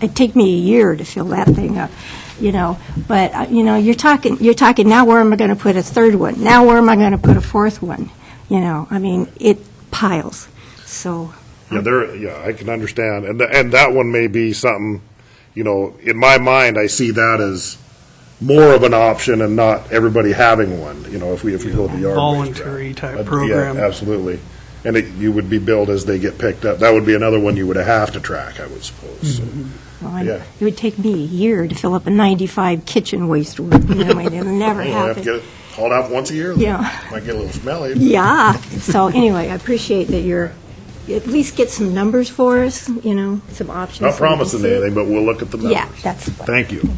it'd take me a year to fill that thing up, you know, but, uh, you know, you're talking, you're talking, now where am I going to put a third one? Now where am I going to put a fourth one? You know, I mean, it piles, so, Yeah, there, yeah, I can understand, and, th- and that one may be something, you know, in my mind, I see that as more of an option and not everybody having one, you know, if we, if we go the yard waste route. Voluntary type But, program. Yeah, absolutely. And it, you would be billed as they get picked up. That would be another one you would have to track, I would suppose, so. Mm-hmm. well, I'm- Yeah. it would take me a year to fill up a 95 kitchen waste room, you know, and it'll never You'll have to get happen. it hauled out once a year? then. Yeah. Might get a little smelly. Yeah, so anyway, I appreciate that you're, you at least get some numbers for us, you know, some options. so Not we can promising see it. anything, but we'll look at the numbers. Yeah, that's what- Thank you.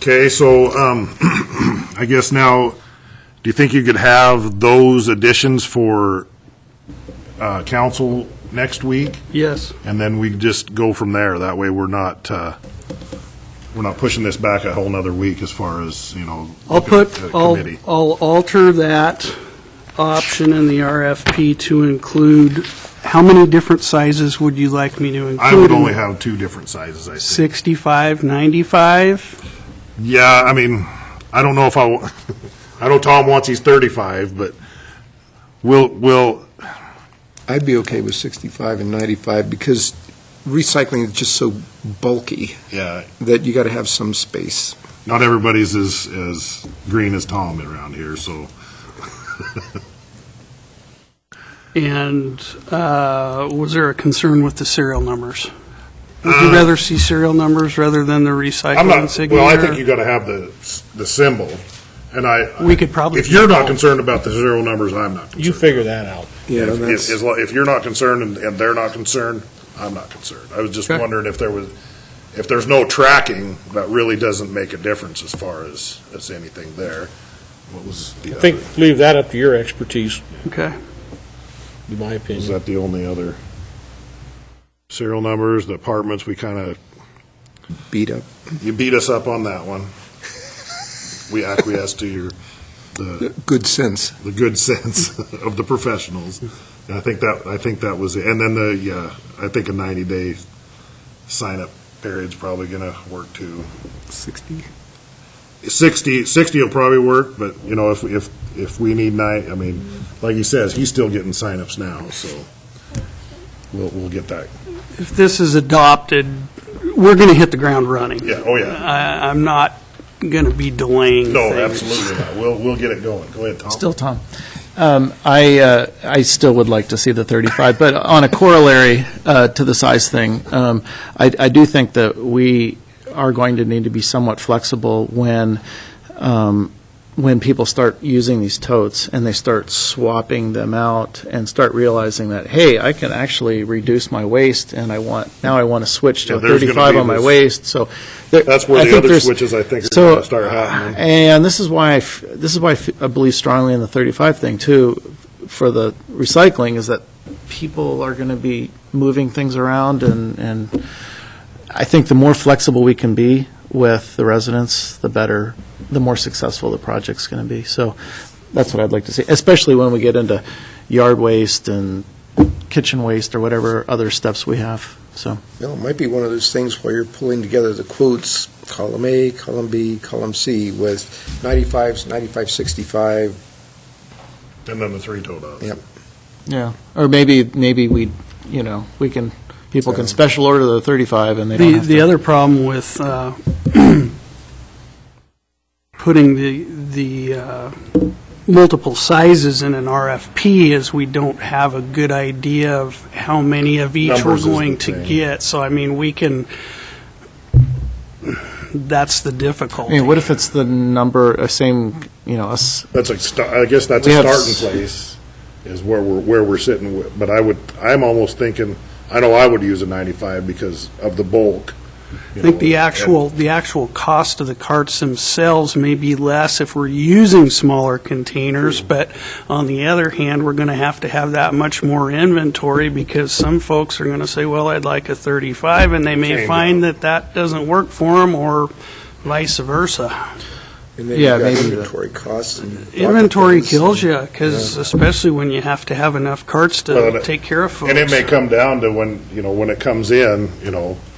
Okay, so um, I guess now, do you think you could have those additions for uh, council next week? Yes. And then we just go from there. That way, we're not, uh, we're not pushing this back a whole nother week as far as, you know. looking I'll at put, the I'll, committee. I'll alter that option in the RFP to include, how many different sizes would you like me to include? I would in only it? have two different sizes, I think. 65, 95? Yeah, I mean, I don't know if I, wa- I know Tom wants he's 35, but we'll, we'll, I'd be okay with 65 and 95 because recycling is just so bulky yeah, that you got to have some space. not everybody's as, as green as Tom around here, so. And uh, was there a concern with the serial numbers? Would you rather see serial numbers rather than the Uh, I'm recycling not, insignia? well, I think you gotta have the, s- the symbol, and I. We could probably If you're not do concerned about the zero numbers, I'm not concerned. You figure that out. Yeah, If- If, that's- as lo- if you're not concerned and, and they're not concerned, I'm not concerned. I was just Okay. wondering if there was, if there's no tracking, that really doesn't make a difference as far as, as anything there. What was the I other? think, leave that up to your expertise, Okay. in my Is opinion. that the only other? Serial numbers, the apartments, we kind of, Beat up. you beat us up on that one. We acquiesced to your, the, Good sense. the good sense of the professionals. And I think that, I think that was it. And then the, yeah, I think a 90-day sign-up period's probably going to work too. 60. 60, 60 will probably work, but, you know, if, if, if we need nine, I mean, like he says, he's still getting signups now, so we'll, we'll get that. If this is adopted, we're going to hit the ground running. Yeah, oh, yeah. I, I'm not going to be delaying No, things. absolutely not. We'll, we'll get it going. Go ahead, Tom. Still Tom. Um, I, uh, I still would like to see the 35, but on a corollary uh, to the size thing, um, I, I do think that we are going to need to be somewhat flexible when, um, when people start using these totes and they start swapping them out and start realizing that, hey, I can actually reduce my waste and I want, now I want to switch to Yeah, a there's gonna 35 be on my this- waist, so. there- That's where I the think other there's- switches, I think, are so, gonna start happening. And this is why, I f- this is why I f- I believe strongly in the 35 thing, too, for the recycling, is that people are going to be moving things around, and, and I think the more flexible we can be with the residents, the better, the more successful the project's going to be. So that's what I'd like to see, especially when we get into yard waste and kitchen waste or whatever other steps we have, so. No, it might be one of those things where you're pulling together the quotes, column A, column B, column C, with 95s, 95, 65. And then the three toe dots. Yep. Yeah, or maybe, maybe we, you know, we can, people can special order the 35 and they don't The, have to. the other problem with uh, putting the, the uh, multiple sizes in an RFP is we don't have a good idea of how many of each Numbers we're is the going to thing. get. So I mean, we can, that's the I difficulty. mean, what if it's the number, uh, same, you know, us, That's a, sta- I guess that's a We have starting s- place, is where we're, where we're sitting, wi- but I would, I'm almost thinking, I know I would use a 95 because of the bulk. I think the actual, the actual cost of the carts themselves may be less if we're using smaller containers, Hmm. but on the other hand, we're going to have to have that much more inventory because some folks are going to say, well, I'd like a 35, and they Change may it. find that that doesn't work for them or vice versa. And then Yeah, you've got maybe the- inventory costs. and Inventory pocketbooks. kills you, because especially when you have to have enough carts Well, to and- take care of folks. And it may come down to when, you know, when it comes in, you know,